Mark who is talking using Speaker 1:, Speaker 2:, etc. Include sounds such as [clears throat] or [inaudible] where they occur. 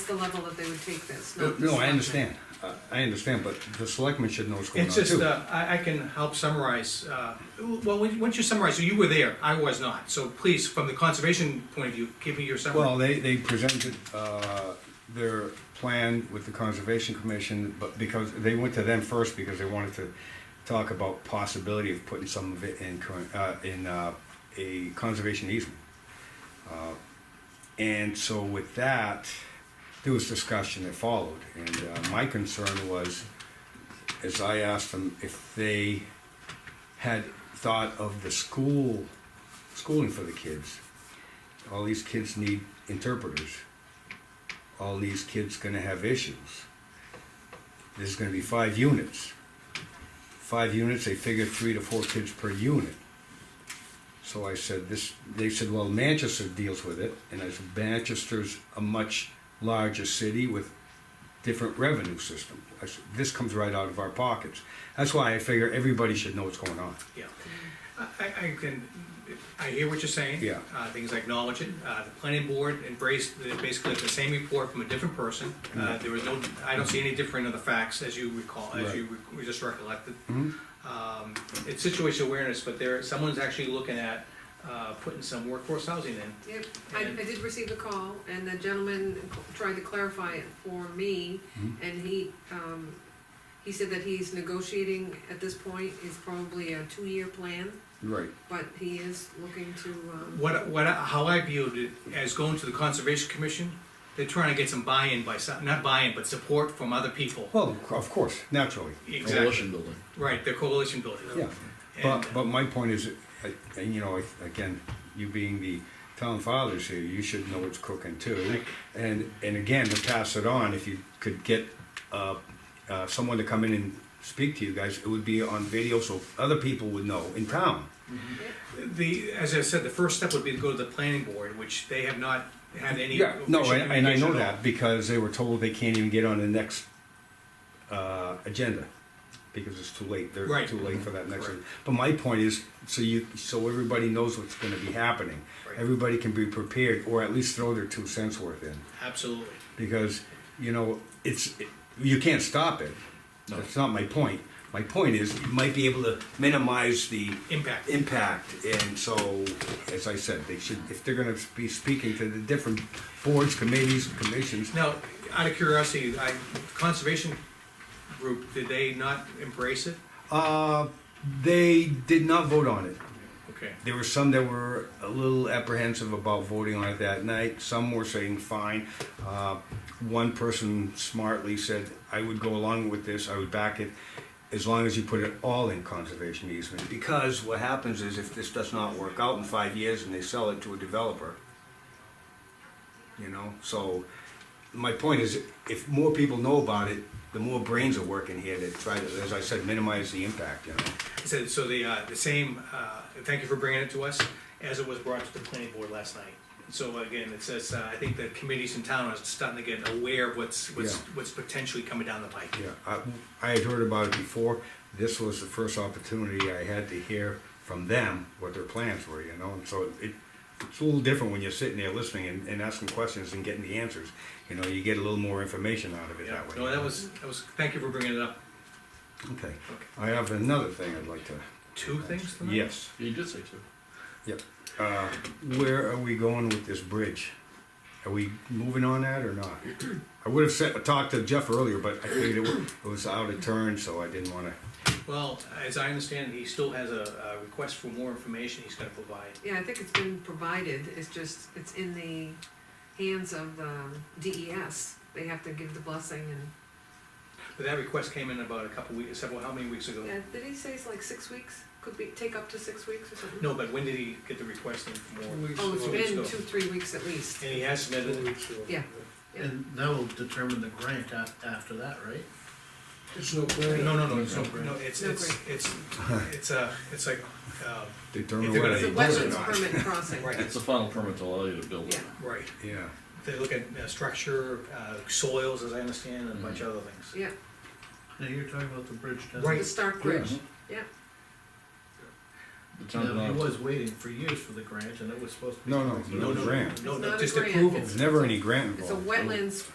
Speaker 1: the level that they would take this.
Speaker 2: No,
Speaker 1: not the
Speaker 2: no, I
Speaker 1: selectmen.
Speaker 2: understand, I- I understand, but the selectmen should know what's going on
Speaker 3: It's
Speaker 2: too.
Speaker 3: just, uh, I, I can help summarize, uh, well, why don't you summarize, you were there, I was not, so please, from the conservation point of view, give me your
Speaker 2: Well, they,
Speaker 3: summary.
Speaker 2: they presented, uh, their plan with the Conservation Commission, but because, they went to them first because they wanted to talk about possibility of putting some of it in, current- uh, in, uh, a conservation easement. Uh, And so with that, there was discussion that followed, and, uh, my concern was, is I asked them if they had thought of the school, schooling for the kids all these kids need interpreters. All these kids gonna have issues. There's gonna be five units. Five units, they figure three to four kids per unit. So I said, this, they said, well, Manchester deals with it, and I said, Manchester's a much larger city with different revenue system. I said, this comes right out of our pockets. That's why I figure everybody should know what's going on.
Speaker 3: Yeah, I, I- I can, I hear what you're saying.
Speaker 2: Yeah.
Speaker 3: Uh, things I acknowledge it, uh, the planning board embraced, the- basically the same report from a different person, uh, there was no, I don't see any different of the facts as you recall, as
Speaker 2: Mm-hmm. Right.
Speaker 3: you re- we just recollected.
Speaker 2: Mhm.
Speaker 3: Um, it's situation awareness, but there, someone's actually looking at, uh, putting some workforce housing in.
Speaker 1: Yep, I, I did receive a call, and the gentleman tried to clarify it for me,
Speaker 2: Mm-hmm.
Speaker 1: and he, um, he said that he's negotiating at this point, it's probably a two-year plan,
Speaker 2: Right.
Speaker 1: but he is looking to, um,
Speaker 3: What, what, how I viewed it as going to the Conservation Commission, they're trying to get some buy-in by some, not buy-in, but support from other people.
Speaker 2: Well, of course, naturally.
Speaker 3: Exactly,
Speaker 4: coalition building.
Speaker 3: right, they're coalition building.
Speaker 2: Yeah.
Speaker 3: And-
Speaker 2: But, but my point is, I- and you know, I- again, you being the town fathers here, you should know what's cooking too. And, and again, to pass it on, if you could get, uh, uh, someone to come in and speak to you guys, it would be on video so other people would know in town.
Speaker 3: The, as I said, the first step would be to go to the planning board, which they have not had any.
Speaker 2: Yeah, no,
Speaker 3: official
Speaker 2: and, and I
Speaker 3: communication
Speaker 2: know
Speaker 3: at all.
Speaker 2: that because they were told they can't even get on the next, uh, agenda. Because it's too late, they're
Speaker 3: Right.
Speaker 2: too late for that next,
Speaker 3: Right.
Speaker 2: but my point is, so you, so everybody knows what's gonna be happening.
Speaker 3: Right.
Speaker 2: Everybody can be prepared, or at least throw their two cents worth in,
Speaker 3: Absolutely.
Speaker 2: because, you know, it's, it- you can't stop it.
Speaker 4: No.
Speaker 2: That's not my point, my point is, you might be able to minimize the
Speaker 3: Impact.
Speaker 2: impact, and so, as I said, they should, if they're gonna be speaking to the different boards, committees, commissions,
Speaker 3: Now, out of curiosity, I, conservation group, did they not embrace it?
Speaker 2: uh, they did not vote on it.
Speaker 3: Okay,
Speaker 2: There were some that were a little apprehensive about voting on it that night, some were saying fine. Uh, One person smartly said, I would go along with this, I would back it, as long as you put it all in conservation easement. Because what happens is if this does not work out in five years and they sell it to a developer, you know, so my point is, if more people know about it, the more brains are working here to try to, as I said, minimize the impact, you know.
Speaker 3: so, so the, uh, the same, uh, thank you for bringing it to us, as it was brought to the planning board last night. So again, it says, uh, I think the committees in town are starting to get aware of what's, what's,
Speaker 2: Yeah.
Speaker 3: what's potentially coming down the pike.
Speaker 2: Yeah, I, I had heard about it before. This was the first opportunity I had to hear from them what their plans were, you know, and so it, it's a little different when you're sitting there listening and, and asking questions and getting the answers. You know, you get a little more information out of it
Speaker 3: Yeah,
Speaker 2: that way.
Speaker 3: no, that was, that was, thank you for bringing it up.
Speaker 2: Okay,
Speaker 3: Okay.
Speaker 2: I have another thing I'd like to,
Speaker 3: Two things tonight?
Speaker 2: yes,
Speaker 4: You did say two.
Speaker 2: yep. Uh, where are we going with this bridge? Are we moving on that or
Speaker 3: [clears throat]
Speaker 2: not? I would have said, talked to Jeff earlier, but I figured it wa- it was out of turn, so I didn't wanna,
Speaker 3: Well, as I understand, he still has a, a request for more information he's gonna provide.
Speaker 1: yeah, I think it's been provided, it's just, it's in the hands of, um, DES. They have to give the blessing and,
Speaker 3: But that request came in about a couple weeks, several, how many weeks ago?
Speaker 1: yeah, did he say it's like six weeks? Could be, take up to six weeks or something?
Speaker 3: No, but when did he get the request in for more?
Speaker 1: Oh, it's
Speaker 3: Two weeks
Speaker 1: been
Speaker 3: ago.
Speaker 1: two, three weeks at least.
Speaker 3: And he has submitted it.
Speaker 1: Yeah. Yeah.
Speaker 5: And that will determine the grant a- after that, right?
Speaker 6: It's no grant.
Speaker 3: No, no, no, it's, no, no, it's,
Speaker 1: No
Speaker 3: it's, it's, it's, uh, it's like, um,
Speaker 2: determine
Speaker 3: If they're
Speaker 2: whether
Speaker 3: gonna-
Speaker 1: It's
Speaker 2: they
Speaker 1: a
Speaker 2: do it or
Speaker 1: wetlands
Speaker 2: not.
Speaker 1: permit crossing.
Speaker 3: Right.
Speaker 4: It's the final permit to allow you to build
Speaker 1: Yeah.
Speaker 4: it.
Speaker 3: right,
Speaker 2: Yeah.
Speaker 3: they look at uh, structure, uh, soils, as I understand, and a bunch of other things.
Speaker 1: Yeah,
Speaker 5: Now, you're talking about the bridge down.
Speaker 3: Right. Mm-hmm.
Speaker 1: the Stark Bridge, yeah.
Speaker 4: The town
Speaker 5: Now, he
Speaker 4: denied it.
Speaker 5: was waiting for years for the grant, and it was supposed to be.
Speaker 2: No, no, no
Speaker 3: No, no,
Speaker 2: grant.
Speaker 3: No,
Speaker 1: It's
Speaker 3: no,
Speaker 1: not a
Speaker 3: just
Speaker 1: grant,
Speaker 3: approval.
Speaker 1: it's-
Speaker 2: There's never any grant
Speaker 1: It's a
Speaker 2: involved.
Speaker 1: wetlands